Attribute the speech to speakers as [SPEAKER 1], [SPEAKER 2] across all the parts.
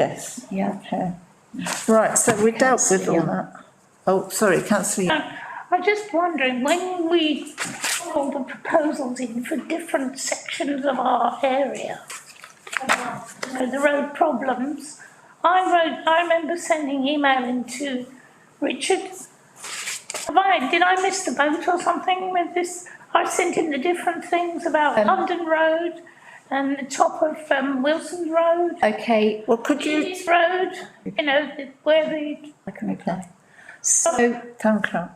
[SPEAKER 1] Yes,
[SPEAKER 2] Yeah.
[SPEAKER 1] okay. Right, so we dealt with all
[SPEAKER 2] Councillor Young.
[SPEAKER 1] that. Oh, sorry, councillor, Young.
[SPEAKER 3] I'm just wondering, when we put all the proposals in for different sections of our area, you know, the road problems, I wrote, I remember sending email into Richard. Have I, did I miss the boat or something with this? I sent in the different things about
[SPEAKER 2] Um,
[SPEAKER 3] London Road and the top of um, Wilson Road,
[SPEAKER 2] Okay,
[SPEAKER 1] well, could you,
[SPEAKER 3] Keys Road, you know, the- where the,
[SPEAKER 2] I can reply. So
[SPEAKER 1] town clerk,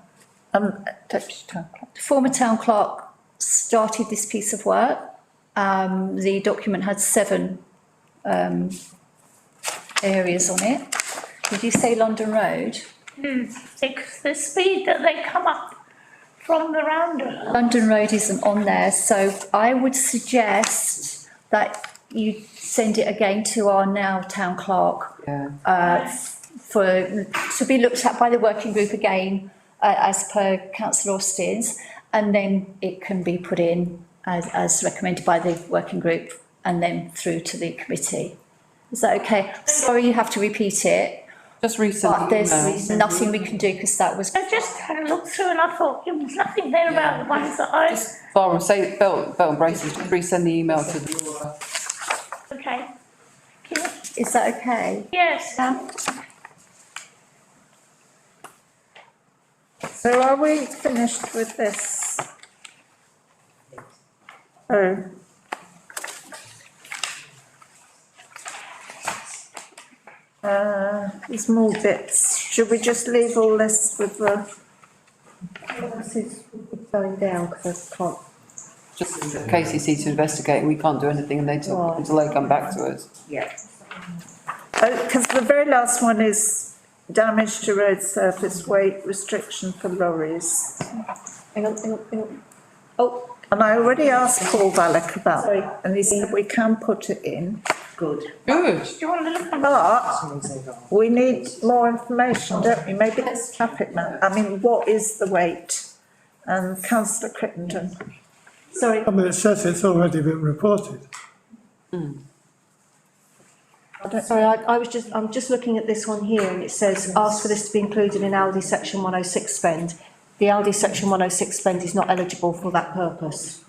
[SPEAKER 1] um, deputy town clerk.
[SPEAKER 2] the former town clerk started this piece of work. Um, the document had seven, um, areas on it. Did you say London Road?
[SPEAKER 3] hmm, the- the speed that they come up from the roundabout.
[SPEAKER 2] London Road isn't on there, so I would suggest that you send it again to our now town clerk. Uh, for, to be looked at by the working group again, uh, as per councillor Austin's. And then it can be put in as, as recommended by the working group and then through to the committee. Is that okay? Sorry, you have to repeat it,
[SPEAKER 4] Just
[SPEAKER 2] but
[SPEAKER 4] resend the
[SPEAKER 2] there's
[SPEAKER 4] email.
[SPEAKER 2] nothing we can do because that was.
[SPEAKER 3] I just had a look through and I thought there was nothing there about the ones that I,
[SPEAKER 4] Just Barbara, say, Bell, Bell and Braces, just resend the email to the.
[SPEAKER 3] okay. Yes.
[SPEAKER 2] Is that okay?
[SPEAKER 3] Yes,
[SPEAKER 2] Yeah.
[SPEAKER 1] So are we finished with this? Oh. Uh, there's more bits. Should we just leave all this with the?
[SPEAKER 5] going down because I can't,
[SPEAKER 4] Just for KCC to investigate, we can't do anything and they talk
[SPEAKER 5] Right.
[SPEAKER 4] until they come back to us.
[SPEAKER 5] yeah.
[SPEAKER 1] Oh, because the very last one is damage to road surface weight restriction for lorries.
[SPEAKER 5] Hang on, hang on, hang on. Oh.
[SPEAKER 1] And I already asked Paul Valek about that, and he said we can put it in,
[SPEAKER 5] Good.
[SPEAKER 4] Good.
[SPEAKER 3] do you want to look at
[SPEAKER 1] but we need more information, don't we? Maybe it's traffic map, I mean, what is the weight? And councillor Crittenden,
[SPEAKER 5] Sorry,
[SPEAKER 6] I mean, it says it's already been reported.
[SPEAKER 5] sorry, I, I was just, I'm just looking at this one here and it says, ask for this to be included in Aldi section one oh six spend. The Aldi section one oh six spend is not eligible for that purpose.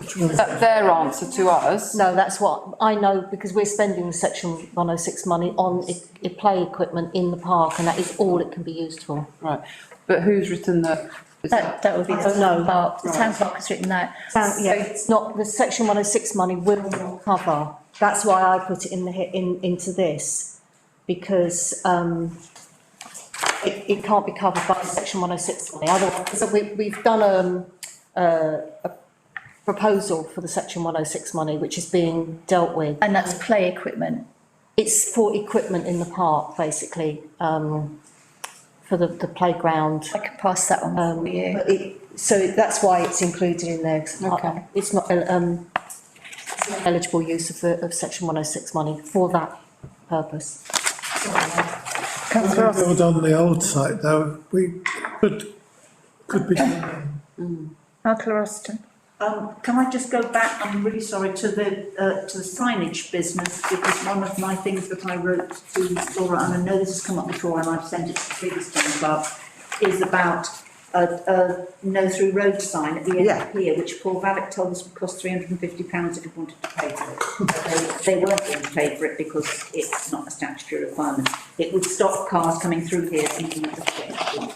[SPEAKER 4] Is that their answer to us?
[SPEAKER 5] No, that's what, I know because we're spending the section one oh six money on i- i- play equipment in the park and that is all it can be used for.
[SPEAKER 4] Right, but who's written the? is
[SPEAKER 2] That,
[SPEAKER 4] that-
[SPEAKER 2] that would be the
[SPEAKER 5] Oh, no.
[SPEAKER 2] town clerk, the town clerk has written that.
[SPEAKER 5] So, Uh, yeah, it's not, the section one oh six money will not cover, that's why I put it in the, he- in, into this. Because, um, it, it can't be covered by section one oh six money, otherwise, so we, we've done, um, uh, a proposal for the section one oh six money, which is being dealt with.
[SPEAKER 2] And that's play equipment.
[SPEAKER 5] It's for equipment in the park, basically, um, for the, the playground.
[SPEAKER 2] I can pass that on
[SPEAKER 5] Um,
[SPEAKER 2] for you.
[SPEAKER 5] but it, so that's why it's included in there. 'cause I-
[SPEAKER 4] Okay.
[SPEAKER 5] It's not, um, it's not eligible use of the, of section one oh six money for that purpose.
[SPEAKER 6] If
[SPEAKER 1] councillor
[SPEAKER 6] we
[SPEAKER 1] Austin,
[SPEAKER 6] build on the old site though, we could, could be,
[SPEAKER 1] councillor Austin.
[SPEAKER 7] Um, can I just go back, I'm really sorry, to the, uh, to the signage business, because one of my things that I wrote to Laura, and I know this has come up before, and I've sent it to the previous town clerk, is about a, a no through road sign at the end
[SPEAKER 1] Yeah.
[SPEAKER 7] of here, which Paul Vavick told us would cost three hundred and fifty pounds if you wanted to pay for it. But They, they weren't going to pay for it because it's not a statutory requirement. It would stop cars coming through here thinking it's a state law.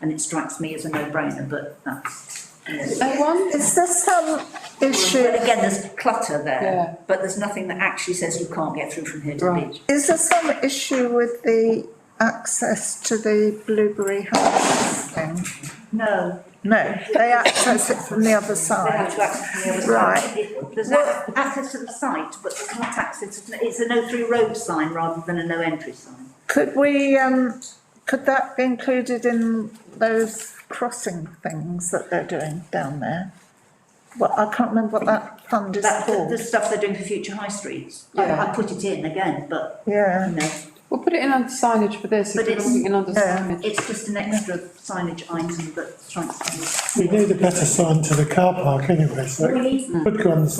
[SPEAKER 7] And it strikes me as a no-brainer, but that's, you know.
[SPEAKER 1] Is there some issue,
[SPEAKER 7] But again, there's clutter
[SPEAKER 4] Yeah.
[SPEAKER 7] there, but there's nothing that actually says you can't get through from here to the
[SPEAKER 4] Right.
[SPEAKER 7] beach.
[SPEAKER 1] is there some issue with the access to the Blueberry House thing?
[SPEAKER 7] No,
[SPEAKER 1] No, they access it from the other
[SPEAKER 7] they
[SPEAKER 1] side.
[SPEAKER 7] have to access from the other
[SPEAKER 1] Right.
[SPEAKER 7] side. It- There's ac- access to the site, but there's not access, it's a no through road sign rather than a no entry sign.
[SPEAKER 1] Could we, um, could that be included in those crossing things that they're doing down there? Well, I can't remember what that fund is
[SPEAKER 7] That, the, the
[SPEAKER 1] called.
[SPEAKER 7] stuff they're doing for future high streets, I, I put it in again, but, you
[SPEAKER 1] Yeah,
[SPEAKER 7] know,
[SPEAKER 4] We'll put it in under signage for this, if
[SPEAKER 7] But
[SPEAKER 4] we're
[SPEAKER 7] it's-
[SPEAKER 4] putting it in under
[SPEAKER 1] Yeah.
[SPEAKER 4] signage.
[SPEAKER 7] it's just an extra signage item that strikes me.
[SPEAKER 6] we need a better sign to the car park anyway, so it could go on the